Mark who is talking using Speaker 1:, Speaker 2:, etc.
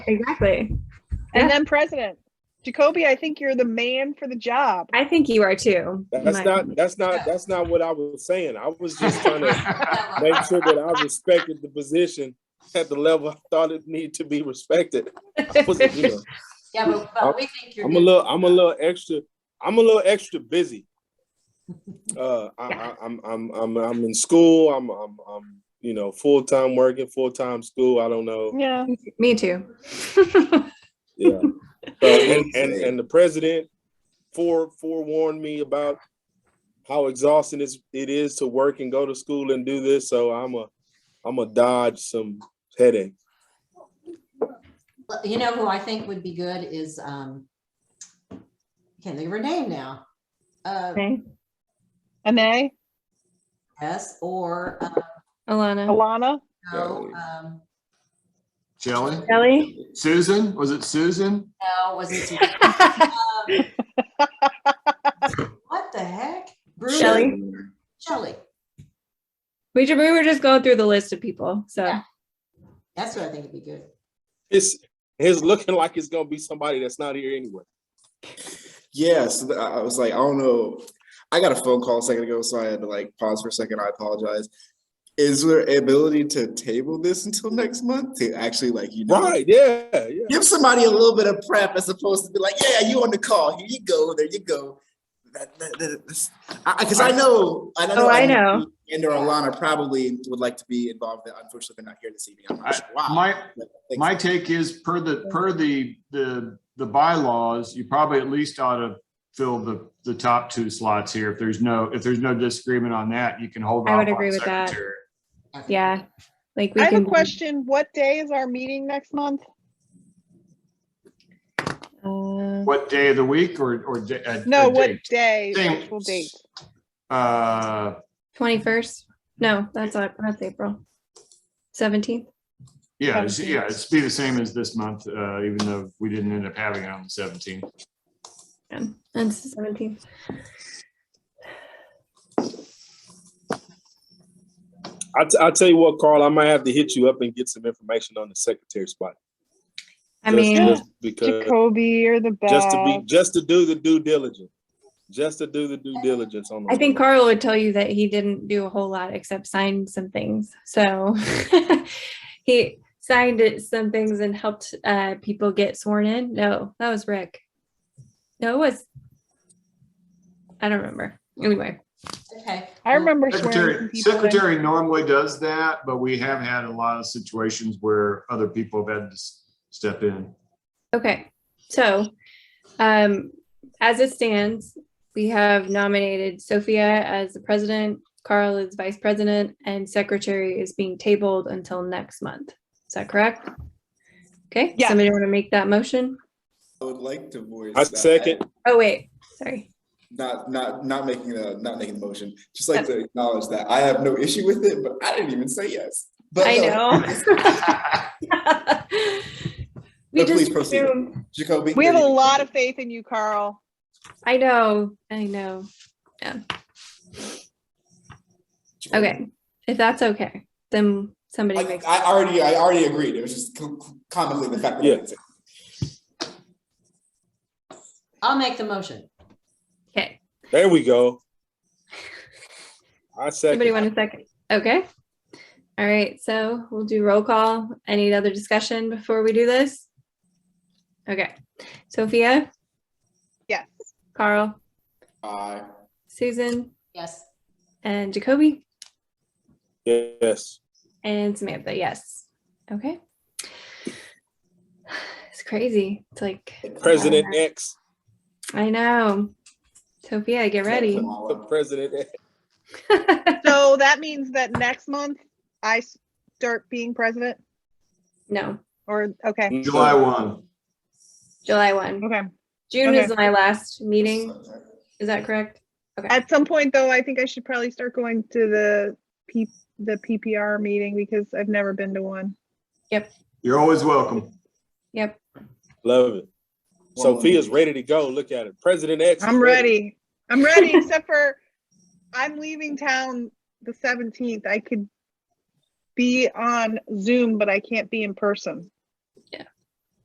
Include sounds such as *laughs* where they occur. Speaker 1: Exactly.
Speaker 2: And then president. Jacoby, I think you're the man for the job.
Speaker 1: I think you are too.
Speaker 3: That's
Speaker 1: My-
Speaker 3: *laughs* not that's not that's not what I was saying. I was just trying to make sure that I respected the position at the level I thought it needed to be respected. I was, you know,
Speaker 4: Yeah, but, but we think you're.
Speaker 3: I'm a
Speaker 4: good.
Speaker 3: little I'm a little extra I'm a little extra busy. Uh, I, I, I'm I'm I'm I'm in school. I'm I'm I'm you know full time working, full time school. I don't know.
Speaker 2: Yeah.
Speaker 1: *laughs* Me
Speaker 2: *laughs*
Speaker 1: too.
Speaker 3: Yeah. So, and, and and the president fore forewarned me about how exhausting it's, it is to work and go to school and do this. So I'm a I'm a dodge some headache.
Speaker 4: You know who I think would be good is, um, can't think of her name now. Uh,
Speaker 1: Okay.
Speaker 2: Anae,
Speaker 4: yes, or, uh,
Speaker 1: Alana.
Speaker 2: Alana,
Speaker 4: no, um,
Speaker 5: Shelley?
Speaker 1: Kelly. *laughs*
Speaker 5: Susan? Was it Susan?
Speaker 4: no, wasn't.
Speaker 3: *laughs*
Speaker 4: What the heck? Bruno-
Speaker 1: Shelley.
Speaker 4: Shelley,
Speaker 1: We, ju- we were just going through the list of people. So
Speaker 4: Yeah. that's what I think would be good.
Speaker 3: It's it's looking like it's gonna be somebody that's not here anyway.
Speaker 6: Yes, I I was like, I don't know. I got a phone call a second ago, so I had to like pause for a second. I apologize. Is there ability to table this until next month to actually like you know
Speaker 3: Right? Yeah. Yeah.
Speaker 6: give somebody a little bit of prep as opposed to be like, yeah, you on the call. Here you go. There you go. That- that- that- that's- I Because I, know, I know.
Speaker 1: Oh, I
Speaker 6: Andy
Speaker 1: know.
Speaker 6: And or Alana probably would like to be involved. but Unfortunately, they're not here this evening. I'm
Speaker 5: I-
Speaker 6: not sure why.
Speaker 5: My,
Speaker 6: but thanks.
Speaker 5: my take is per the, per the, the, the bylaws, you probably at least ought to fill the, the top two slots here. If there's no, if there's no disagreement on that, you can hold off.
Speaker 1: I would
Speaker 5: on
Speaker 1: agree with that.
Speaker 5: secretary.
Speaker 4: I think.
Speaker 1: yeah. Like we
Speaker 2: I have
Speaker 1: can
Speaker 2: a question. What day is our meeting next month?
Speaker 1: Uh,
Speaker 5: What day of the week or, or? da- a-
Speaker 2: No,
Speaker 5: a
Speaker 2: what
Speaker 5: date?
Speaker 2: day,
Speaker 5: Dang.
Speaker 2: actual date?
Speaker 5: Uh,
Speaker 1: 21st. No, that's not, that's April. 17th.
Speaker 5: yeah, it's-
Speaker 1: Seventeenth.
Speaker 5: yeah, it's be the same as this month, uh, even though we didn't end up having it on the seventeenth.
Speaker 1: Yeah. And it's the 17th.
Speaker 3: I t- I'll tell you what, Carl. I might have to hit you up and get some information on the secretary spot.
Speaker 1: I
Speaker 3: Just-
Speaker 1: mean,
Speaker 3: just
Speaker 5: uh,
Speaker 3: because
Speaker 2: Jacoby, you're the best.
Speaker 3: just to be just to do the due diligence, just to do the due diligence on.
Speaker 1: I
Speaker 3: the-
Speaker 1: think Carl would tell you that he didn't do a whole lot except sign some things. So *laughs* he signed it, some things and helped uh, people get sworn in. No, that was Rick. No, it was. I don't remember. Anyway,
Speaker 4: Okay.
Speaker 2: I remember swearing some
Speaker 5: Secretary,
Speaker 2: people. in.
Speaker 5: secretary normally does that, but we have had a lot of situations where other people have had to s- step in.
Speaker 1: okay. So um, as it stands, we have nominated Sophia as the president, Carl is vice president, and secretary is being tabled until next month. Is that correct? Okay,
Speaker 2: Yes.
Speaker 1: somebody want to make that motion?
Speaker 6: I would like to voice.
Speaker 3: I
Speaker 6: that.
Speaker 3: second.
Speaker 1: Oh, wait, sorry.
Speaker 6: not not not making the not making the motion. Just like to acknowledge that I have no issue with it, but I didn't even say yes. But
Speaker 1: I
Speaker 6: no,
Speaker 1: know.
Speaker 6: *laughs*
Speaker 1: We
Speaker 6: But please
Speaker 1: just
Speaker 6: proceed.
Speaker 1: assume,
Speaker 6: Jacoby.
Speaker 2: We have a
Speaker 6: there you go.
Speaker 2: lot of faith in you, Carl.
Speaker 1: I know, I know.
Speaker 6: Jacoby.
Speaker 1: Okay, if that's okay, then somebody
Speaker 6: Like,
Speaker 1: makes,
Speaker 6: I already I already agreed. It was just co- co- comically the fact that I
Speaker 3: Yeah.
Speaker 6: didn't say it.
Speaker 4: I'll make the motion.
Speaker 1: okay,
Speaker 3: There we go. I
Speaker 1: somebody
Speaker 3: second.
Speaker 1: want a second? Okay. All right, so we'll do roll call. Any other discussion before we do this? Okay, Sophia,
Speaker 2: Yes.
Speaker 1: Carl,
Speaker 6: Aye.
Speaker 1: Susan,
Speaker 4: Yes.
Speaker 1: and Jacoby?
Speaker 3: Yes.
Speaker 1: And Samantha, yes. Okay. It's crazy. It's like,
Speaker 3: President X.
Speaker 1: I know. Sophia, get ready. *laughs*
Speaker 3: The President X.
Speaker 2: So that means that next month I start being president
Speaker 1: no,
Speaker 2: or, okay,
Speaker 5: July one.
Speaker 1: July 1.
Speaker 2: okay.
Speaker 1: June
Speaker 2: Okay.
Speaker 1: is my last meeting. Is that correct?
Speaker 2: At some point though, I think I should probably start going to the P, the PPR meeting because I've never been to one.
Speaker 5: You're always welcome.
Speaker 1: Yep.
Speaker 3: Love it.
Speaker 6: One more
Speaker 3: Sophia's
Speaker 6: minute.
Speaker 3: ready to go. Look at it. President X. is
Speaker 2: I'm ready. I'm ready, except for I'm leaving town the seventeenth. I could be on Zoom, but I can't be in person.